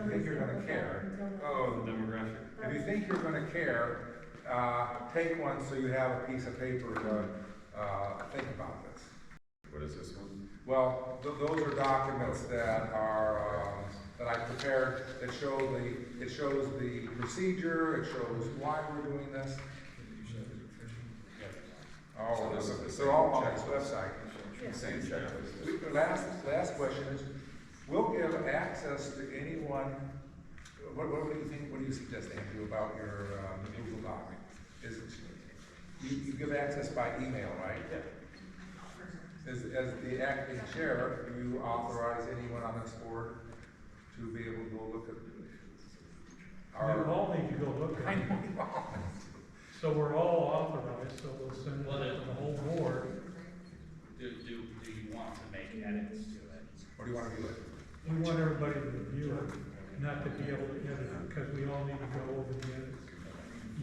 gonna care, Oh, the demographic. Um, if you think you're gonna care, uh, take one so you have a piece of paper to, uh, think about this. What is this one? Well, th- those are documents that are, um, that I prepared that show the, it shows the procedure, it shows why we're doing this. Oh, So this is the they're all same on this checklist. website. Same checklist. We- the Last, last question is, we'll give access to anyone, what, what do you think, what do you suggest, Andrew, about your, um, Google Doc? Is, you, you give access by email, right? As, as the acting chair, do you authorize anyone on this board to be able to go look at We our? all need to go look I at it. know you all. So we're all authorized, so we'll send it to the whole board. Do, do, do you want to make edits to it? What do you wanna do with it? We want everybody to review it, not to be able to edit it, because we all need to go over the edits.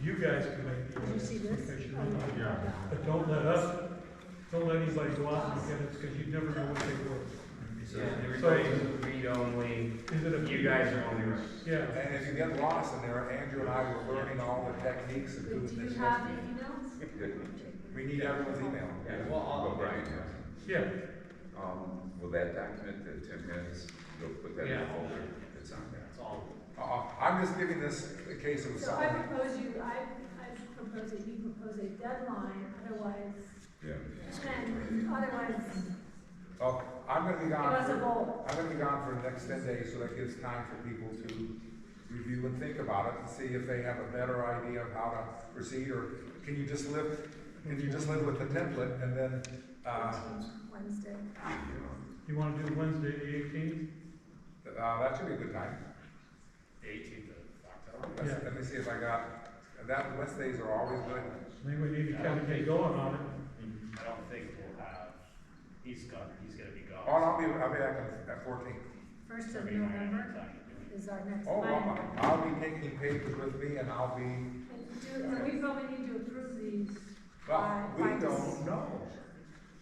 You guys can make the Did you edits see this? because Oh, you're on it. But don't let us, don't let anybody go out and get it, because you never know what they So everybody's read only, were. Is it a? only right. Yeah. And if you get lost in there, Andrew and I were learning all the techniques of doing Do you this. have the emails? We need everyone's email. Yeah, Well, I'll- well, Brian has. Yeah, Um, will that document that Tim has, you'll put that in the Yeah. folder that's on there? That's all. Uh, I'm just giving this a case of a So I supplement. propose you, I, I propose that you propose a deadline, otherwise, Yeah. and otherwise, Well, Uh, I'm gonna be it gone was a for, goal. I'm gonna be gone for the next ten days, so that gives time for people to review and think about it and see if they have a better idea of how to proceed, or can you just live, can you just live with the template and then, uh, Wednesday. you want to do Wednesday the eighteenth? uh, that should be a good time. The eighteenth of October. Let's- Yeah. Let me see if I got, that, Wednesdays are always good. I think we need to kind of get going on it. I don't think we'll have, he's gone, he's gonna be gone. Oh, I'll be, I'll be back on- at fourteen. First So of we don't have any November time to do it. is our next Oh, one. I'll- I'll be taking papers with me and I'll be, And do, and we probably need to approve these, well, Fine, we fine. don't know.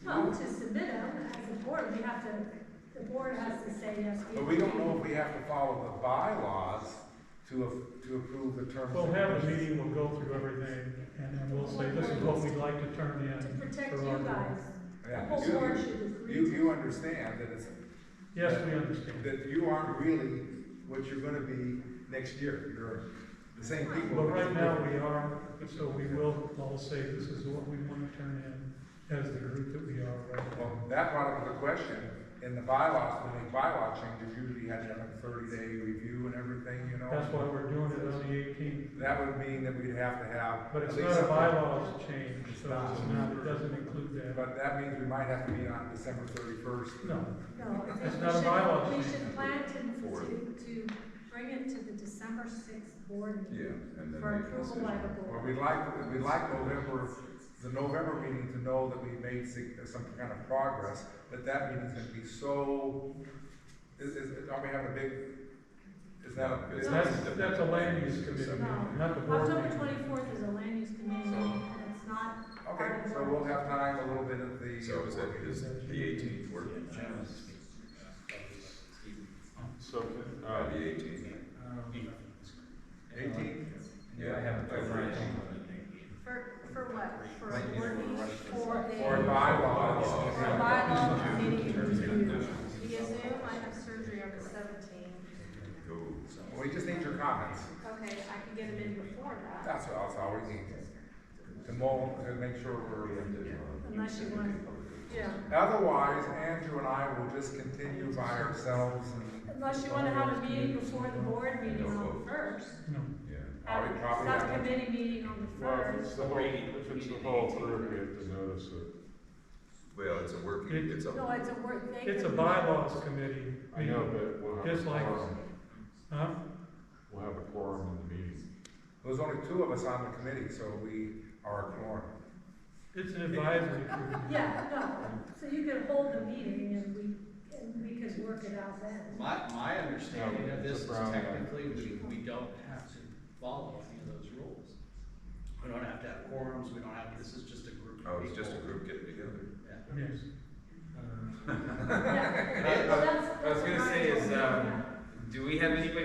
well, to submit them as a board, we have to, the board has to say yes. But we don't know if we have to follow the bylaws to, a- to approve the terms. We'll and have a conditions. meeting, we'll go through everything, and then we'll say, this is what we'd like to turn To in. protect for you our board." guys, the Yeah, whole you- board should agree You, to. you understand that it's, Yes, we understand. that you aren't really what you're gonna be next year, you're the same people. But right now, we are, so we will all say, this is what we want to turn in as the group that we are right now. Well, that brought up the question, in the bylaws, when they bylaw changes, usually you have to have a thirty-day review and everything, you know? That's why we're doing it on the eighteenth. That would mean that we'd have to have. But it's at least not a something. bylaws change, so it's not, it doesn't include that. But that means we might have to meet on December thirty-first. No, No, I That's think we not a bylaw should, we change. should plan to, Forward. to, to bring it to the December sixth board Yeah, meeting and then for make a approval by decision. the Well, board. we'd like, we'd like November, the November meeting to know that we made sig- some kind of progress, but that meeting's gonna be so, is, is, are we having a big, is that a? is that- that's, that's a land use committee, meeting, not the board October meeting. twenty-fourth is a land use committee So- meeting, and it's not, Okay, so we'll have time a little bit at the. So is that, is the eighteenth work? So, Uh, the eighteenth. Eighteenth? Yeah, I have to for, for what? For a board meeting, for a, Or for bylaws. a bylaw meeting to do via Zoom, I have surgery on the seventeenth. Go. We just need your comments, Okay, I can get them in before that, that's all, that's all we need, to mull, to make sure we're. unless you want, Ah. yeah, Otherwise, Andrew and I will just continue by ourselves and. unless you wanna have a meeting before the board meeting on the first. No, Yeah. Have Are we probably a gonna- subcommittee meeting on the well, if first. it's the whole, if it's the whole group, we have to notice it. Well, it's a working, it's No, a, it's a work, they it's a could- bylaws committee I know, meeting, but we'll have. a Just like- quorum. huh? We'll have a quorum in the meeting. There's only two of us on the committee, so we are a quorum. It's an advisory group. Yeah, no, so you could hold the meeting and we, and we could work it out then. My, my understanding No, of this it's a is brown bag. technically, we, we don't have to follow any of those rules. We don't have to have quorums, we don't have, this is just a group of people. oh, it's just a group getting together. Yeah. Yes. Yeah, well, I that's- was that's gonna what say Ryan is, told me. um, Do we have anybody